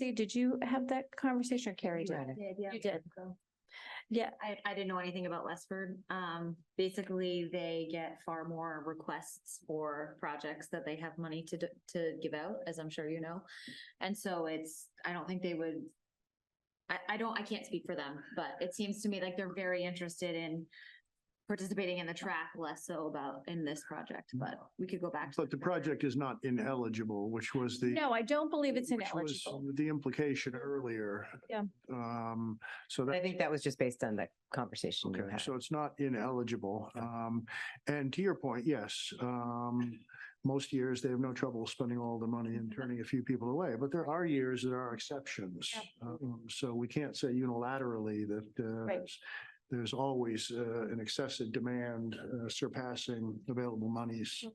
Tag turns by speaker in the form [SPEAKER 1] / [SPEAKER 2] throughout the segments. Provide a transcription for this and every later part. [SPEAKER 1] Dee, did you have that conversation or Carrie did?
[SPEAKER 2] I did, yeah.
[SPEAKER 1] You did. Yeah,
[SPEAKER 2] I, I didn't know anything about Westford. Um, basically, they get far more requests for projects that they have money to, d- to give out, as I'm sure you know. And so it's, I don't think they would, I, I don't, I can't speak for them, but it seems to me like they're very interested in participating in the track, less so about in this project, but we could go back to.
[SPEAKER 3] But the project is not ineligible, which was the.
[SPEAKER 1] no, I don't believe it's
[SPEAKER 3] which was
[SPEAKER 1] ineligible.
[SPEAKER 3] The implication earlier.
[SPEAKER 1] Yeah.
[SPEAKER 3] Um, so that.
[SPEAKER 4] I think that was just based on that conversation you
[SPEAKER 3] Okay,
[SPEAKER 4] had.
[SPEAKER 3] so it's not ineligible. Um, and to your point, yes, um, most years they have no trouble spending all the money and
[SPEAKER 1] Mm-hmm.
[SPEAKER 3] turning a few people away, but there are years there are exceptions. Um, So we can't say unilaterally that, uh,
[SPEAKER 1] Right.
[SPEAKER 3] there's- there's always, uh, an excessive demand uh, surpassing available monies.
[SPEAKER 1] Mm.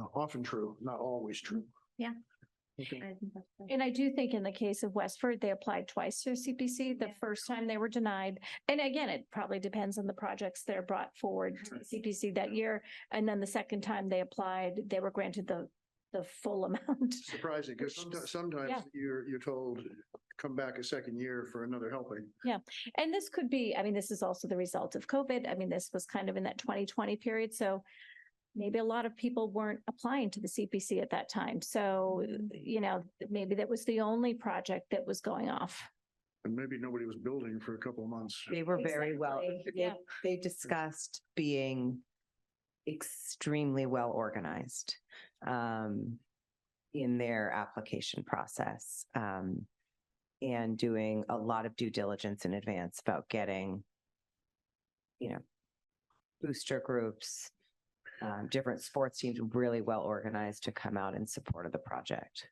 [SPEAKER 3] Uh, often true, not always true.
[SPEAKER 2] Yeah.
[SPEAKER 3] Okay.
[SPEAKER 2] I think that's right.
[SPEAKER 1] And I do think in the case of Westford, they applied twice to CPC. The
[SPEAKER 2] Yeah.
[SPEAKER 1] first time they were denied. And again, it probably depends on the projects that are brought forward to CPC that year. And then the second time they applied, they were granted the, the full amount.
[SPEAKER 3] Surprising, because
[SPEAKER 1] Becomes- yeah.
[SPEAKER 3] sometimes you're, you're told, come back a second year for another helping.
[SPEAKER 1] And this could be, I mean, this is also the result of COVID. I mean, this was kind of in that 2020 period. So maybe a lot of people weren't applying to the CPC at that time. So, you know, maybe that was the only project that was going off.
[SPEAKER 3] And maybe nobody was building for a couple of months.
[SPEAKER 4] They were very well,
[SPEAKER 1] Exactly,
[SPEAKER 4] they-
[SPEAKER 1] yeah.
[SPEAKER 4] they discussed being extremely well organized um, in their application process. um, And doing a lot of due diligence in advance about getting, you know, booster groups, um, different sports teams really well organized to come out in support of the project.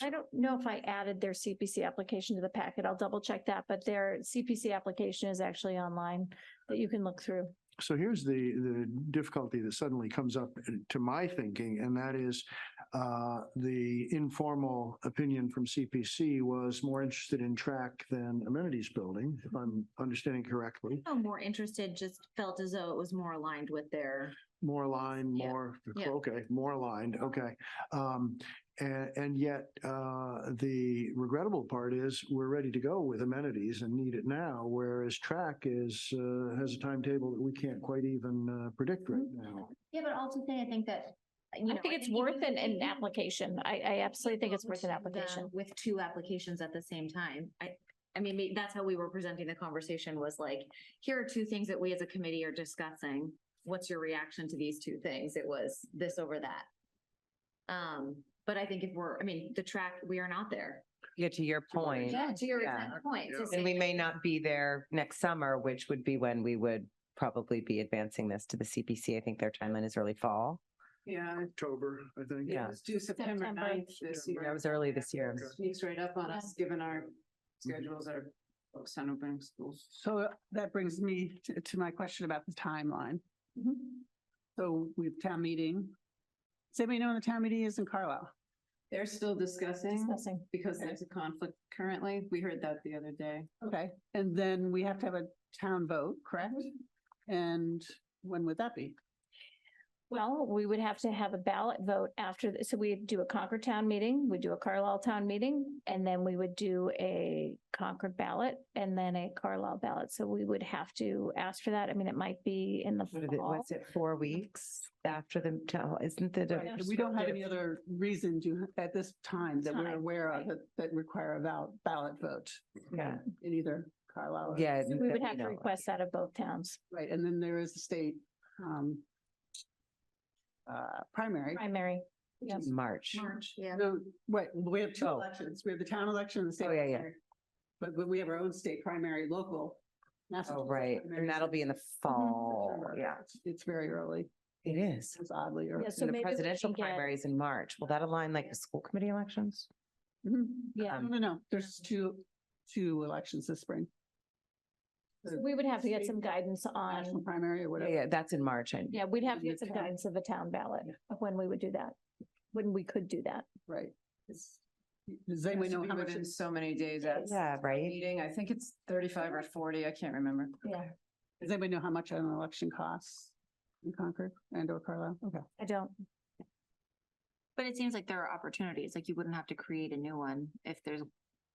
[SPEAKER 1] I don't know if I added their CPC application to the packet. I'll double check that, but their CPC application is actually online that you can look through.
[SPEAKER 3] So here's the, the difficulty that suddenly comes up uh, to my thinking, and that is uh, the informal opinion from CPC was more interested in track than amenities building, if I'm understanding correctly.
[SPEAKER 2] No, more interested, just felt as though it was more aligned with their,
[SPEAKER 3] More aligned,
[SPEAKER 2] Yeah.
[SPEAKER 3] more,
[SPEAKER 2] Yeah.
[SPEAKER 3] okay, more aligned, okay. Um, And, and yet uh, the regrettable part is we're ready to go with amenities and need it now, whereas track is, uh, has a timetable that we can't quite even uh, predict right now.
[SPEAKER 2] yeah, but also say, I think that, you know.
[SPEAKER 1] I think it's
[SPEAKER 2] even
[SPEAKER 1] worth an,
[SPEAKER 2] if you
[SPEAKER 1] an
[SPEAKER 2] do-
[SPEAKER 1] application. I, I absolutely think it's worth an
[SPEAKER 2] Versus them
[SPEAKER 1] application.
[SPEAKER 2] With two applications at the same time. I, I mean, may- that's how we were presenting the conversation was like, here are two things that we as a committee are discussing. What's your reaction to these two things? It was this over that. Um, but I think if we're, I mean, the track, we are not there.
[SPEAKER 4] Yeah, to your point.
[SPEAKER 2] Yeah, to your
[SPEAKER 4] Yeah.
[SPEAKER 2] exact point. to
[SPEAKER 3] Yeah.
[SPEAKER 2] say-
[SPEAKER 4] And we may not be there next summer, which would be when we would probably be advancing this to the CPC. I think their timeline is early fall.
[SPEAKER 5] Yeah,
[SPEAKER 3] October, I think.
[SPEAKER 4] Yeah.
[SPEAKER 5] it was due September
[SPEAKER 1] September.
[SPEAKER 5] 9th this year.
[SPEAKER 4] That was early this year. Mm-hmm.
[SPEAKER 5] Sneaks right up on us, given our schedules are focused on opening schools. So that brings me to, to my question about the timeline. Mm-hmm. So we have town meeting. Does anybody know when the town meeting is in Carlisle? They're still discussing
[SPEAKER 1] Discussing.
[SPEAKER 5] because there's a conflict currently. We heard that the other day. Okay, and then we have to have a town vote, correct? Mm-hmm. And when would that be?
[SPEAKER 1] Well, we would have to have a ballot vote after, th- so we'd do a Concord town meeting, we'd do a Carlisle town meeting, and then we would do a Concord ballot and then a Carlisle ballot. So we would have to ask for that. I mean, it might be in the
[SPEAKER 4] What is it-
[SPEAKER 1] fall.
[SPEAKER 4] Was it four weeks after the, town? isn't it?
[SPEAKER 5] Right,
[SPEAKER 4] a-
[SPEAKER 5] and We don't have any other reason to, at this time, that we're
[SPEAKER 1] Time,
[SPEAKER 5] aware
[SPEAKER 1] right.
[SPEAKER 5] of, that, that require a val- ballot vote
[SPEAKER 4] Yeah,
[SPEAKER 5] in either Carlisle. or-
[SPEAKER 4] yeah.
[SPEAKER 1] So We would
[SPEAKER 4] you
[SPEAKER 1] have to
[SPEAKER 4] know,
[SPEAKER 1] request that of both towns,
[SPEAKER 5] Right, and then there is the state, um, uh, primary.
[SPEAKER 1] primary.
[SPEAKER 5] which is-
[SPEAKER 4] March.
[SPEAKER 2] March, yeah.
[SPEAKER 5] No, wait, we have two
[SPEAKER 4] Oh.
[SPEAKER 5] elections. We have the town election and the state.
[SPEAKER 4] Oh, yeah, yeah.
[SPEAKER 5] primary. But, but we have our own state primary, local.
[SPEAKER 4] Oh, right. And that'll be in the
[SPEAKER 1] Mm-hmm.
[SPEAKER 4] fall.
[SPEAKER 5] September.
[SPEAKER 4] Yeah,
[SPEAKER 5] It's- It's very early.
[SPEAKER 4] it is.
[SPEAKER 5] It's oddly early.
[SPEAKER 1] Yeah, so
[SPEAKER 4] And
[SPEAKER 1] maybe
[SPEAKER 4] the
[SPEAKER 1] we
[SPEAKER 4] presidential
[SPEAKER 1] can get-
[SPEAKER 4] primaries in March. Will that align like the school committee elections?
[SPEAKER 5] Mhm.
[SPEAKER 1] Yeah.
[SPEAKER 5] No, no, no. There's two, two elections this spring.
[SPEAKER 1] So We would have to get some
[SPEAKER 5] State-
[SPEAKER 1] guidance
[SPEAKER 5] National
[SPEAKER 1] on,
[SPEAKER 5] primary or
[SPEAKER 4] Yeah,
[SPEAKER 5] whatever.
[SPEAKER 4] Yeah, that's in March. I-
[SPEAKER 1] yeah, we'd have to
[SPEAKER 5] Yeah,
[SPEAKER 1] get some
[SPEAKER 5] town.
[SPEAKER 1] guidance of a town ballot of when we would do that, when we could do that.
[SPEAKER 5] Right. Does anyone know how much it's
[SPEAKER 6] So many days at
[SPEAKER 4] Yeah, right?
[SPEAKER 6] meeting, I think it's thirty-five or forty, I can't remember.
[SPEAKER 1] Yeah,
[SPEAKER 5] does anybody know how much an election costs in Concord and or Carlisle? Okay.
[SPEAKER 1] I don't,
[SPEAKER 2] But it seems like there are opportunities, like you wouldn't have to create a new one if there's